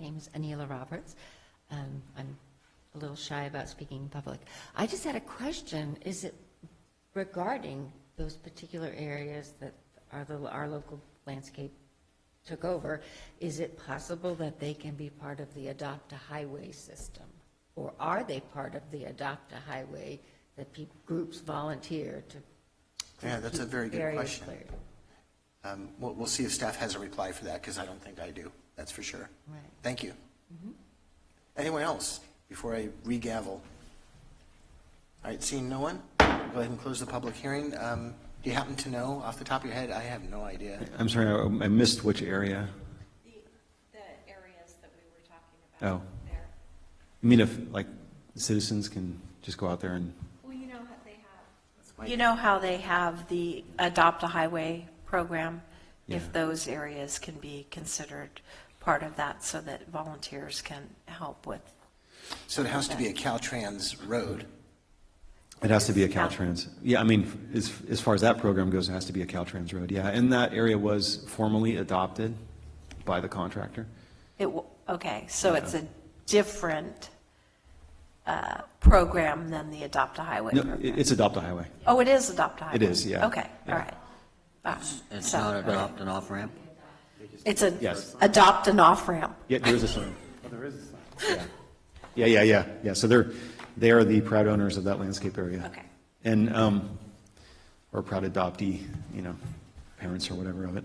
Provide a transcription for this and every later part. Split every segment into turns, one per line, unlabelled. name is Anila Roberts. Um, I'm a little shy about speaking in public. I just had a question. Is it regarding those particular areas that our, little- our local landscape took over, is it possible that they can be part of the adopt-a-highway system? Or are they part of the adopt-a-highway that peop groups volunteer to?
Yeah, that's a very good
areas
question.
cleared?
Um, We'll, we'll see if staff has a reply for that, because I don't think I do, that's for sure.
Right.
Thank you. Anyone else, before I regavel? All right, seeing no one, go ahead and close the public hearing. Um, Do you happen to know, off the top of your head? I have no idea.
I'm sorry, I I missed which area.
The, the areas that we were talking
Oh.
about there.
You mean if, like, citizens can just go out there and,
Well, you know how they have,
That's my-
You know how they have the Adopt a Highway program?
Yeah.
If those areas can be considered part of that so that volunteers can help with,
So it has to be a Caltrans road.
it has to be a Caltrans. Yeah, I mean, as, as far as that program goes, it has to be a Caltrans road, yeah. And that area was formally adopted by the contractor.
it, w- okay, so it's a different uh, program than the Adopt a Highway
No, it-
program?
it's Adopt a Highway.
Oh, it is Adopt a Highway?
It is, yeah.
Okay, all right. Ah,
It's
so-
not an opt and off ramp?
It's a,
Yes.
adopt an off-ramp.
Yeah, Oh, there is a sign. Yeah, yeah, yeah, yeah. So they're, they are the proud owners of that landscape area.
Okay.
And, um, or proud adoptee, you know, parents or whatever of it.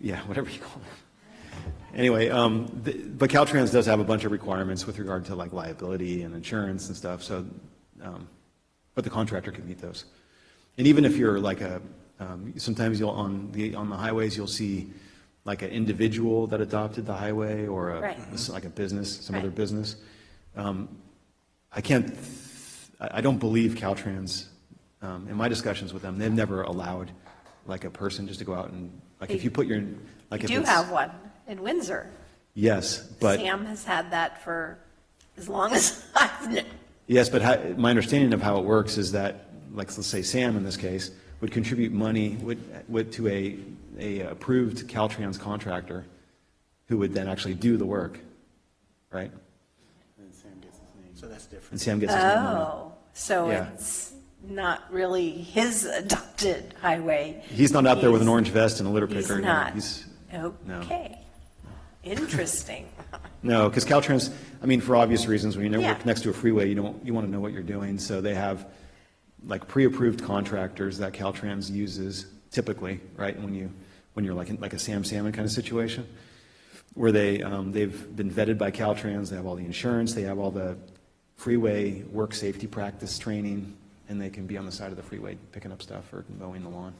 Yeah, whatever you call them. Anyway, um, the, but Caltrans does have a bunch of requirements with regard to like liability and insurance and stuff, so, um, but the contractor can meet those. And even if you're like a, um, sometimes you'll, on the, on the highways, you'll see like an individual that adopted the highway or a,
Right.
it's like a business, some other
Right.
business. Um, I can't, th- I I don't believe Caltrans, um, in my discussions with them, they've never allowed like a person just to go out and, like if you put your, like
You
if
do
it's.
have one in Windsor.
Yes, but,
Sam has had that for as long as I've known.
yes, but how- my understanding of how it works is that, like, let's say Sam in this case, would contribute money, would, would to a, a approved Caltrans contractor who would then actually do the work, right?
So that's different.
And Sam gets his name on it.
Oh, so
Yeah.
it's not really his adopted highway.
He's not out there with an
He's-
orange vest and a litter
He's
picker. you know,
not.
He's, no.
Okay. Interesting.
No, because Caltrans, I mean, for obvious reasons, when you
Yeah.
work next to a freeway, you don't, you want to know what you're doing. So they have like pre-approved contractors that Caltrans uses typically, right? When you, when you're like, in- like a Sam Salmon kind of situation, where they, um, they've been vetted by Caltrans, they have all the insurance, they have all the freeway work safety practice training, and they can be on the side of the freeway picking up stuff or mowing the lawn.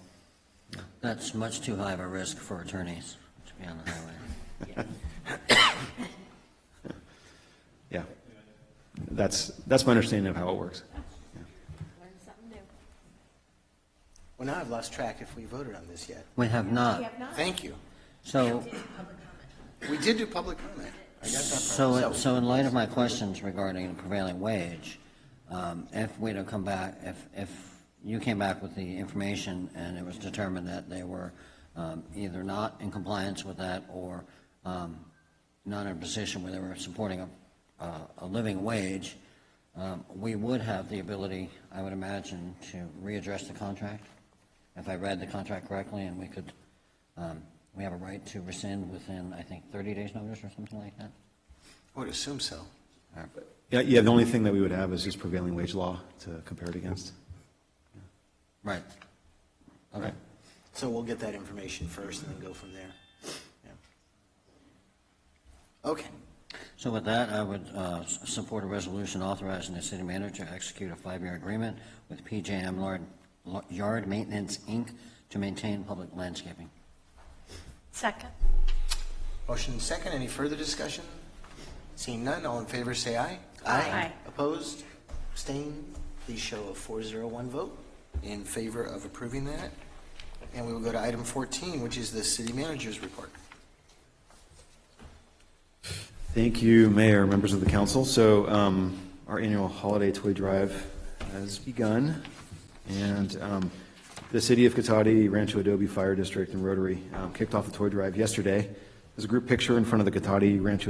That's much too high of a risk for attorneys to be on the highway.
Yeah. That's, that's my understanding of how it works.
learn something new.
Well, now I've lost track if we voted on this yet.
We have not.
We have not.
Thank you.
So,
We did do public comment. I got that part.
so, so in light of my questions regarding the prevailing wage, um, if we'd have come back, if, if you came back with the information and it was determined that they were um, either not in compliance with that or um, not in a position where they were supporting a, a- a living wage, um, we would have the ability, I would imagine, to readdress the contract, if I read the contract correctly, and we could, um, we have a right to rescind within, I think, 30 days' notice or something like that?
I would assume so.
Yeah, yeah, the only thing that we would have is just prevailing wage law to compare it against.
Right. Okay.
So we'll get that information first and then go from there. Yeah. Okay,
So with that, I would uh, s- support a resolution authorizing the city manager to execute a five-year agreement with PJM Lard- Lo- Yard Maintenance, Inc., to maintain public landscaping.
Second.
motion and second, any further discussion? Seeing none, all in favor say aye.
Aye.
Opposed, abstained, please show a four zero one vote in favor of approving that. And we will go to item fourteen, which is the city manager's report.
Thank you, Mayor, members of the council. So um, our annual holiday toy drive has begun, and um, the City of Cotati, Rancho Adobe Fire District, and Rotary um, kicked off the toy drive yesterday. There's a group picture in front of the Cotati Rancho